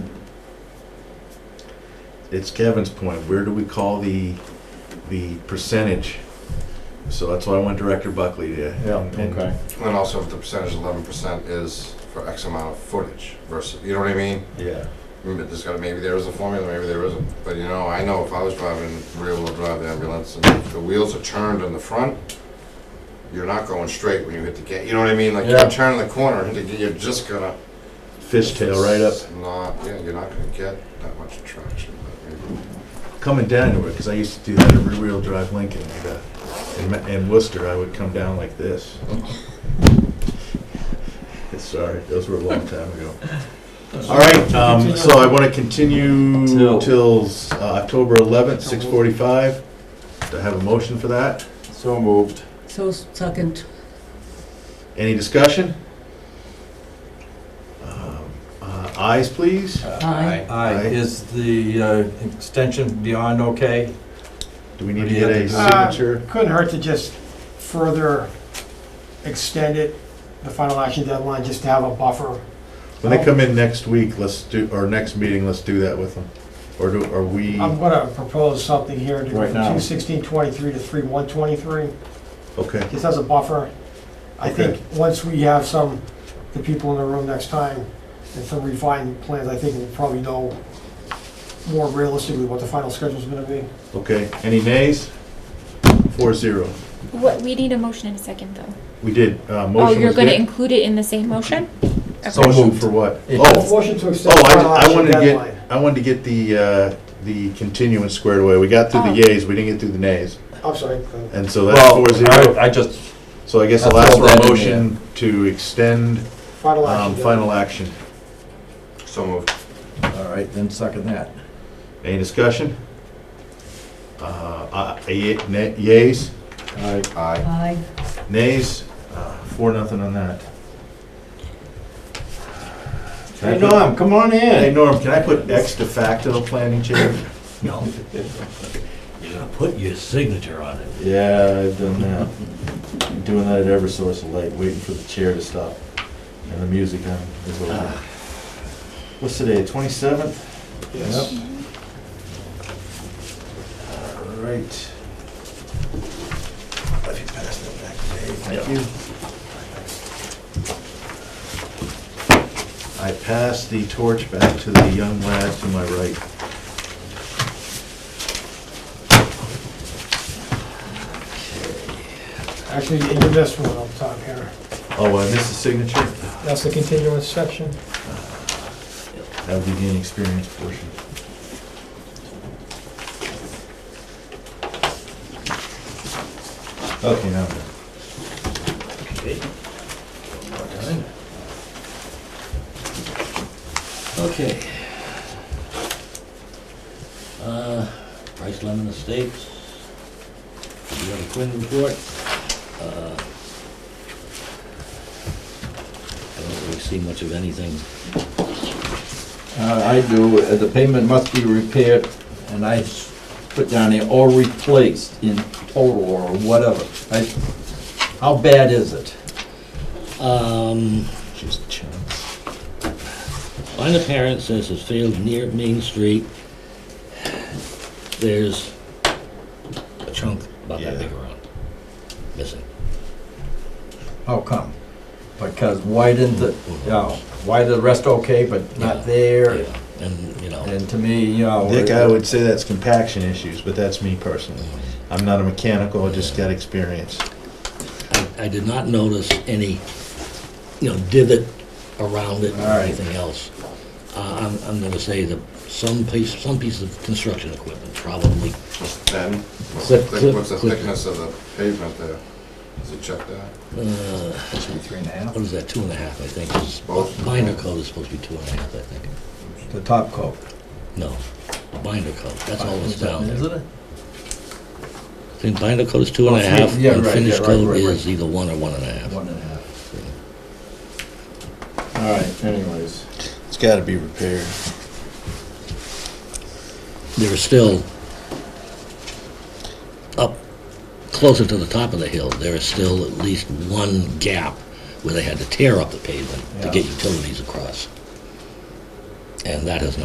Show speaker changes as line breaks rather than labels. it's Kevin's point, where do we call the, the percentage? So that's why I went Director Buckley to.
Yeah,
and-
okay.
And also if the percentage eleven percent is for X amount of footage versus, you know what I mean?
Yeah,
Maybe There's gotta, maybe there is a formula, maybe there isn't, but you know, I know if I was driving a rear-wheel drive ambulance and if the wheels are turned in the front, you're not going straight when you hit the gate, you know what I mean? Like,
Yeah.
you're turning the corner, and you're just gonna.
fishtail right up,
It's Not, yeah, you're not gonna get that much traction, but maybe.
coming down to it, because I used to do that at rear-wheel drive Lincoln, like that. In Ma- in Worcester, I would come down like this. Sorry, those were a long time ago. All right, um, so I want to continue
Till-
till uh, October 11th, 6:45. Do I have a motion for that?
So moved.
So second,
Any discussion? Um, uh, Ayes, please?
Aye.
Aye, is the uh, extension beyond okay?
Do we need to get a
Uh,
signature?
Couldn't hurt to just further extend it, the final action deadline, just to have a buffer.
When they come in next week, let's do, or next meeting, let's do that with them. Or do, are we,
Um,
I'm gonna propose something here to
Right now.
two sixteen twenty-three to three one twenty-three,
okay,
just as a buffer. I
Okay.
think, once we have some, the people in the room next time, and some refined plans, I think we'll probably know more realistically what the final schedule's gonna be.
okay. Any nays? Four zero.
What, we need a motion in a second, though.
We did, uh,
Oh,
motion
you're
was
gonna
good.
include it in the same motion?
So
Okay.
moved for what?
Yeah.
Oh,
Motion to extend
Oh,
the final
I, I
action
wanted to
deadline.
get, I wanted to get the, uh, the continuance squared away. We got through the
Oh.
yays, we didn't get through the nays.
I'm sorry.
And so that's four
Well,
zero.
I I just,
So I guess I'll
That's
ask for
all that
a
in
motion to extend,
Final
um,
action.
final action.
So moved.
all right, then second that.
Any discussion? Uh, uh, ye- na- yays,
Aye.
Aye.
aye.
nays, uh, four, nothing on that.
Hey, Norm, come on
Hey
in.
Norm, can I put ex de facto planning chair?
No. You're gonna put your signature on it.
Yeah, I've done that. Been Doing that at Eversource of late, waiting for the chair to stop and the music on is over. What's today, twenty-seventh?
Yes.
All right. If you pass that back to Dave, thank you. I pass the torch back to the young lad to my right.
Actually, you missed one up top here.
Oh, I missed the signature?
That's the continuance section.
That would be the inexperienced portion. Okay, now, I'm done.
Okay. One
Uh,
more time. Okay. Uh, Bryce Lemon Estates, you have a Quinn report. Uh, I don't really see much of anything.
Uh, I do, uh, the payment must be repaired, and I s- put down here, or replaced in total, or whatever. I- How bad is it?
Um,
just chance.
Line of parent says it's failed near Main Street. There's a chunk about that big around, missing.
How come? Because why didn't the, you know, why the rest okay, but not there?
Yeah, And, you know,
And to me, you know. uh,
Dick, I would say that's compaction issues, but that's me personally.
Mm.
I'm not a mechanical, I just got experience.
I, I did not notice any, you know, divot around it or
All right.
anything else. Uh, I'm, I'm gonna say that some piece, some piece of construction equipment probably
Then, what's the
Click, click,
thick- what's the
click.
thickness of the pavement there? Does it check that?
Three and a half,
uh, What is that, two and a half, I think, is,
Both.
binder coat is supposed to be two and a half, I think.
the top coat.
No, binder coat, that's all that's down
Is
there.
it?
I think binder coat is two and a
Oh, fin-
half,
yeah,
and
right,
finish
yeah, right,
coat
right, right.
is either one or one and a half.
One and a half. All right, anyways.
It's gotta be repaired.
They're still up closer to the top of the hill, there is still at least one gap where they had to tear up the pavement to
Yeah.
get utilities across. And that has not